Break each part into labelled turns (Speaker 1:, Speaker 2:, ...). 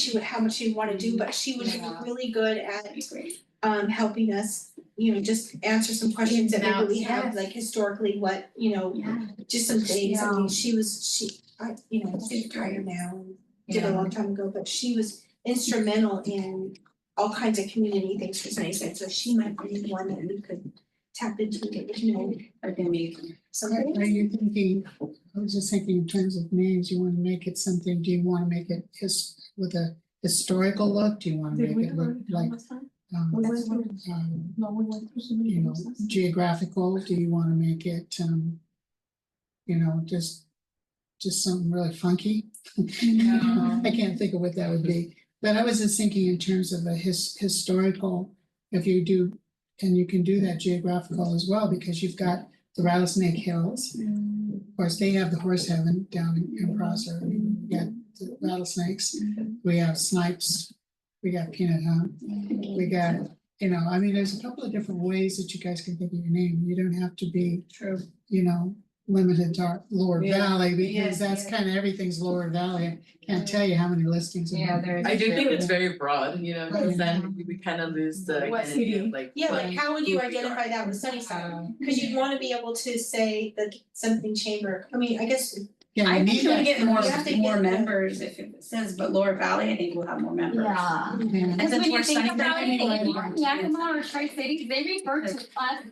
Speaker 1: she would, how much she would wanna do, but she was
Speaker 2: Yeah.
Speaker 1: really good at
Speaker 3: It's great.
Speaker 1: um helping us, you know, just answer some questions that maybe we have,
Speaker 3: Yes.
Speaker 1: like historically, what, you know,
Speaker 3: Yeah.
Speaker 1: just some things, I
Speaker 2: Yeah.
Speaker 1: mean, she was, she, I, you know, she's retired now, and did a long time ago, but she was instrumental in all kinds of community things for Sunnyside, so she might be one that we could tap into, and get the community,
Speaker 3: amazing.
Speaker 1: something.
Speaker 4: Are you thinking, I was just thinking in terms of names, you wanna make it something, do you wanna make it his, with a historical look? Do you wanna make it look like, um, um, you know, geographical? Do you wanna make it, um, you know, just, just something really funky?
Speaker 2: Mm-hmm.
Speaker 4: I can't think of what that would be, but I was just thinking in terms of a his, historical, if you do, and you can do that geographical as well, because you've got the Rattlesnake Hills. Of course, they have the horse heaven down in- in Prosser, we got the rattlesnakes,
Speaker 2: Mm-hmm.
Speaker 4: we have snipes, we got peanut hunt, we got, you know, I mean, there's a couple of different ways that you guys can think of your name, you don't have to be,
Speaker 2: True.
Speaker 4: you know, limited to our Lower
Speaker 2: Yeah.
Speaker 4: Valley,
Speaker 2: Yeah,
Speaker 4: because that's
Speaker 2: yeah.
Speaker 4: kind of, everything's Lower Valley, I can't tell you how many listings. we have.
Speaker 2: there's.
Speaker 5: I do think it's very broad, you know, because then we- we kind of lose the
Speaker 2: What
Speaker 5: identity
Speaker 2: city?
Speaker 5: of like.
Speaker 1: Yeah, like
Speaker 5: what-
Speaker 1: how would you
Speaker 5: who we are.
Speaker 1: identify that with Sunnyside?
Speaker 3: um,
Speaker 1: Cause you'd wanna be able to say that something chamber, I mean, I guess,
Speaker 4: Yeah, we
Speaker 3: I
Speaker 4: need
Speaker 3: think it'll
Speaker 4: that
Speaker 3: get more,
Speaker 4: first.
Speaker 1: have to
Speaker 3: more
Speaker 1: get-
Speaker 3: members if it says, but Lower Valley, I think we'll have more members.
Speaker 6: Yeah.
Speaker 4: Yeah.
Speaker 3: And
Speaker 6: Because
Speaker 3: since
Speaker 6: when
Speaker 3: we're
Speaker 6: you think
Speaker 3: Sunnyside,
Speaker 6: about
Speaker 3: we
Speaker 6: it,
Speaker 3: want
Speaker 6: even
Speaker 3: to-
Speaker 6: Yakima or Tri-Cities, they refer to us,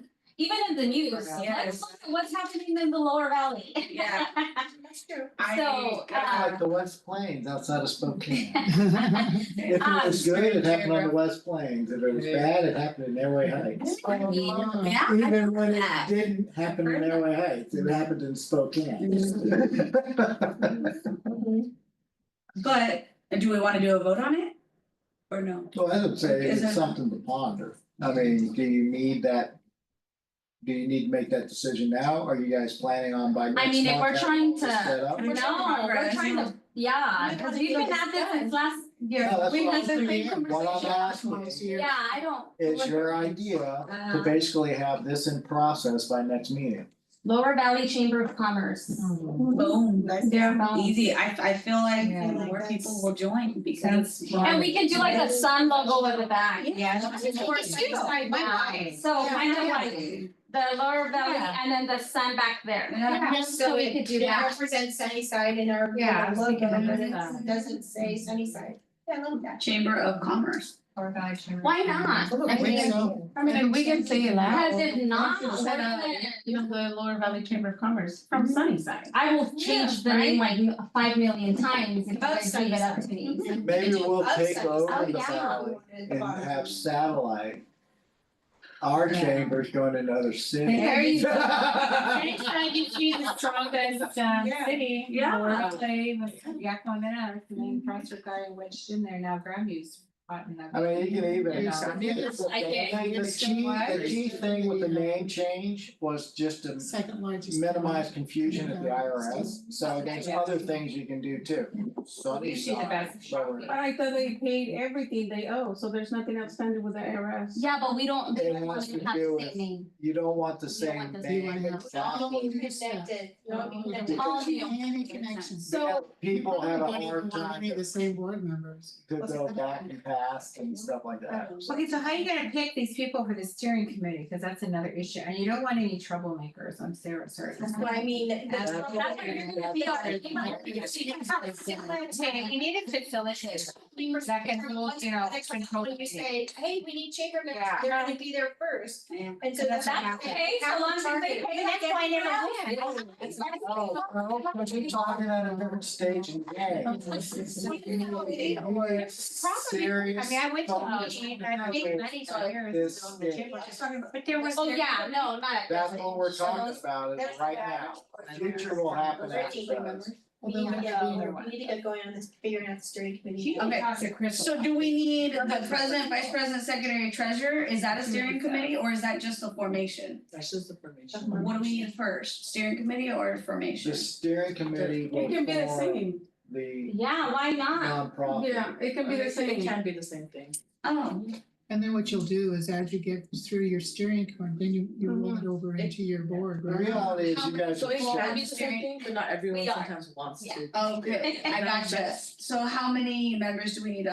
Speaker 6: even in the news,
Speaker 3: Yes.
Speaker 6: let's look at what's happening in the lower valley.
Speaker 3: Yeah.
Speaker 1: that's true.
Speaker 3: I-
Speaker 6: So,
Speaker 7: Kinda
Speaker 6: uh,
Speaker 7: like the West Plains outside of Spokane. If it
Speaker 6: Um,
Speaker 7: was good, it happened on the West Plains, if it was bad, it happened in Airway Heights.
Speaker 3: Yeah, I
Speaker 7: Even when it
Speaker 3: that.
Speaker 7: didn't happen in Airway Heights, it happened in Spokane.
Speaker 6: Mm-hmm.
Speaker 3: But uh, do we wanna do a vote on it? Or no?
Speaker 7: So I would say
Speaker 3: Isn't-
Speaker 7: it's something to ponder, I mean, do you need that? Do you need to make that decision now, are you guys planning on by next month?
Speaker 6: mean, if we're
Speaker 7: having
Speaker 6: trying
Speaker 7: this
Speaker 6: to-
Speaker 7: set up?
Speaker 3: We're trying to
Speaker 6: No, we're
Speaker 3: progress,
Speaker 6: trying
Speaker 3: yeah.
Speaker 6: to, yeah, because we've been at this since last year,
Speaker 7: No, that's
Speaker 6: we
Speaker 7: what
Speaker 6: had
Speaker 7: I'm
Speaker 6: the same
Speaker 7: thinking. What I'm
Speaker 6: conversation.
Speaker 7: asking
Speaker 6: Yeah, I don't.
Speaker 7: is your idea to
Speaker 6: Uh,
Speaker 7: basically have this in process by next meeting.
Speaker 6: Lower Valley Chamber of Commerce.
Speaker 3: Boom,
Speaker 1: Yeah.
Speaker 3: easy, I I feel like
Speaker 2: Yeah.
Speaker 3: more people will join because.
Speaker 6: And we can do like a sun logo at the back.
Speaker 2: Yeah.
Speaker 6: Or Sunnyside
Speaker 2: Why not?
Speaker 6: Valley. So kind of like the lower valley
Speaker 2: Yeah.
Speaker 6: and then the sun back there.
Speaker 2: Yeah.
Speaker 6: So we could do that.
Speaker 1: represents Sunnyside in our, in
Speaker 2: Yeah, I
Speaker 1: our
Speaker 2: was
Speaker 1: logo,
Speaker 2: thinking
Speaker 1: and
Speaker 2: of
Speaker 1: it
Speaker 2: that.
Speaker 1: doesn't say Sunnyside. Yeah, I love that.
Speaker 3: Chamber of Commerce.
Speaker 6: Why not? I
Speaker 4: I think
Speaker 6: mean,
Speaker 4: so.
Speaker 2: I mean, we can say it loud.
Speaker 6: because if not,
Speaker 2: We can set up,
Speaker 6: then
Speaker 2: You know, the Lower Valley Chamber of Commerce from
Speaker 3: Mm-hmm.
Speaker 2: Sunnyside.
Speaker 6: I will change the name like m- five million times if you guys leave it up to me.
Speaker 7: Maybe we'll take
Speaker 6: Oh,
Speaker 7: over the
Speaker 6: yeah.
Speaker 7: valley and have satellite. Our
Speaker 2: Yeah.
Speaker 7: chambers going into other cities.
Speaker 2: There
Speaker 6: you go.
Speaker 2: Anytime you choose the strongest um
Speaker 1: Yeah.
Speaker 2: city,
Speaker 3: Yeah.
Speaker 2: Lower Valley with Yakima Minnetonka, and then Prosser got wedged in there, now Grandview's caught in that.
Speaker 7: I mean, you can even.
Speaker 2: Yeah.
Speaker 7: I mean, it's
Speaker 6: I get
Speaker 7: The
Speaker 2: it.
Speaker 7: the key, the key thing with the name change was just to
Speaker 4: Second largest.
Speaker 7: minimize confusion at the IRS, so there's other things you can do too. Sunny
Speaker 2: Usually the
Speaker 7: side,
Speaker 2: best.
Speaker 7: lower.
Speaker 8: But I thought they paid everything they owe, so there's nothing outstanding with the IRS.
Speaker 6: Yeah, but we don't, they
Speaker 7: It
Speaker 6: don't
Speaker 7: has
Speaker 6: want to
Speaker 7: to
Speaker 6: have
Speaker 7: do
Speaker 6: the
Speaker 7: with-
Speaker 6: same name.
Speaker 7: You don't want the
Speaker 6: You don't want
Speaker 7: same
Speaker 6: the
Speaker 4: same-
Speaker 7: name.
Speaker 4: You want to have all
Speaker 7: exactly.
Speaker 4: the-
Speaker 1: Connected, you know, you
Speaker 4: Yeah.
Speaker 1: can-
Speaker 6: All you.
Speaker 4: Any connections.
Speaker 7: Because People have a
Speaker 4: Don't even
Speaker 7: hard
Speaker 4: want
Speaker 7: time
Speaker 4: any of The same board members.
Speaker 7: to go back and past and stuff like that.
Speaker 2: Okay, so how are you gonna pick these people for the steering committee? Cause that's another issue, and you don't want any troublemakers, I'm Sarah, sorry.
Speaker 1: Well, I mean, that's
Speaker 7: That's
Speaker 6: That's what you're gonna be on.
Speaker 4: Yeah.
Speaker 2: We need to facilitate. That can hold, you know, control.
Speaker 1: When you say, hey, we need chamber members,
Speaker 2: Yeah.
Speaker 1: they're gonna be there first,
Speaker 3: Yeah.
Speaker 1: and so that's.
Speaker 2: That's
Speaker 1: how-
Speaker 6: okay, so
Speaker 1: how
Speaker 6: long as they
Speaker 1: target-
Speaker 6: pay, that's why I never win.
Speaker 7: Oh, well, but you're talking at a different stage in the game.
Speaker 1: Probably,
Speaker 7: Serious.
Speaker 2: I mean, I went to
Speaker 7: thought.
Speaker 2: a meeting, and I think many years
Speaker 7: This
Speaker 2: ago, the
Speaker 7: thing.
Speaker 2: chamber, just talking about- but there was.
Speaker 6: Oh, yeah, no, not.
Speaker 7: That's what we're talking
Speaker 6: Shows.
Speaker 7: about is
Speaker 1: that's
Speaker 7: right
Speaker 1: bad.
Speaker 7: now. Future will happen after
Speaker 1: Thirteen
Speaker 7: us.
Speaker 1: members. We need
Speaker 4: Although
Speaker 1: to
Speaker 4: we-
Speaker 1: go, we need to get going on this, figuring out the steering committee.
Speaker 2: Okay, so Chris.
Speaker 3: So do we need the president, vice president, secretary, treasurer? Is that a steering committee or is that just the formation?
Speaker 2: That's just the permission.
Speaker 3: What do we need first, steering committee or
Speaker 7: The
Speaker 3: formation?
Speaker 7: steering committee will
Speaker 8: It can be the
Speaker 7: form
Speaker 8: same,
Speaker 7: the
Speaker 6: Yeah, why not?
Speaker 7: nonprofit.
Speaker 8: yeah, it can be the same.
Speaker 5: It can be the same thing.
Speaker 3: Oh,
Speaker 4: And then what you'll do is as you get through your steering committee, then you, you roll it over into your board,
Speaker 7: The
Speaker 4: right?
Speaker 7: reality is you guys.
Speaker 5: So it
Speaker 3: Well,
Speaker 5: can
Speaker 3: I'm
Speaker 5: be the
Speaker 3: serious.
Speaker 5: same thing, but not everyone
Speaker 6: We are.
Speaker 5: sometimes wants
Speaker 6: Yeah.
Speaker 5: to.
Speaker 3: Oh, good, I
Speaker 5: And I'm
Speaker 3: gotcha.
Speaker 5: just-
Speaker 3: So how many members do we need